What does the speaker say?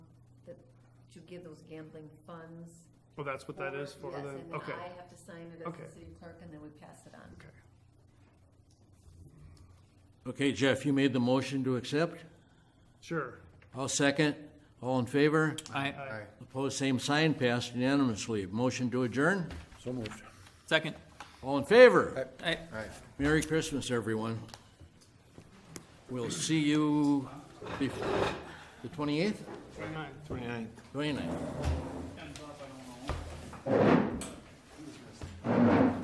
to give those gambling funds. Well, that's what that is for Yes, then? and then Okay, I have to sign it as Okay. the city clerk, and then we pass it on. okay. Okay, Jeff, you made the motion to accept. Sure. I'll second. All in favor? Aye. Opposed, same sign, passed unanimously. Motion to adjourn? So moved. Second. All in favor? Aye. Merry Christmas, everyone. We'll see you before, the twenty-eighth, Twenty-nine. twenty-ninth.